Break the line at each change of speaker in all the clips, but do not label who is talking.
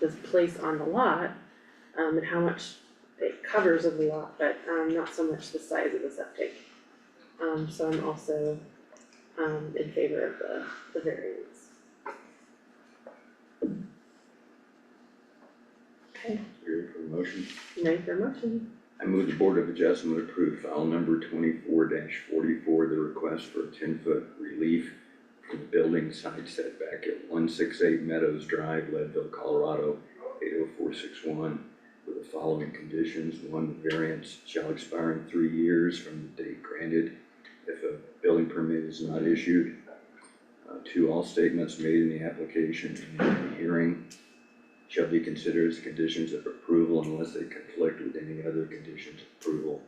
this place on the lot, um, and how much it covers of the lot, but, um, not so much the size of the septic. Um, so I'm also, um, in favor of the, the variance. Okay,
Ready for a motion?
ready for a motion?
I move the Board of Adjustment approve file number twenty-four forty-four, the request for a ten-foot relief from the building side setback at one six eight Meadows Drive, Leadville, Colorado, eight oh four six one, with the following conditions. One, the variance shall expire in three years from the date granted if a building permit is not issued. Uh, two, all statements made in the application and in the hearing shall be considered as conditions of approval unless they conflict with any other conditions of approval.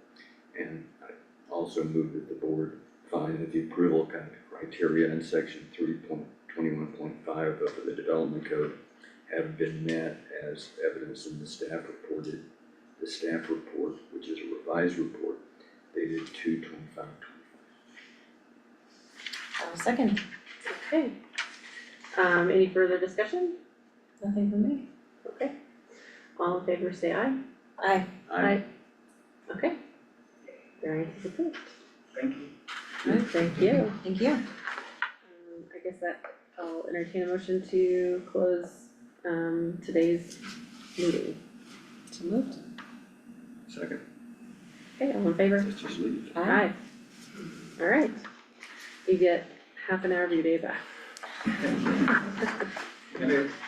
And I also move that the board find that the approval kind of criteria in section three point twenty-one point five of the development code have been met as evidence in the staff reported, the staff report, which is a revised report dated two twenty-five twenty-five.
I'll second,
Okay. Um, any further discussion?
nothing from me.
Okay. All in favor, say aye.
Aye.
Aye. Okay. Variance is approved.
Thank you.
Alright, thank you. Um,
Thank you.
I guess that, I'll entertain a motion to close, um, today's meeting.
So moved.
Second,
Okay, all in favor?
let's just leave.
Aye. Alright. You get half an hour of your day back.
And it-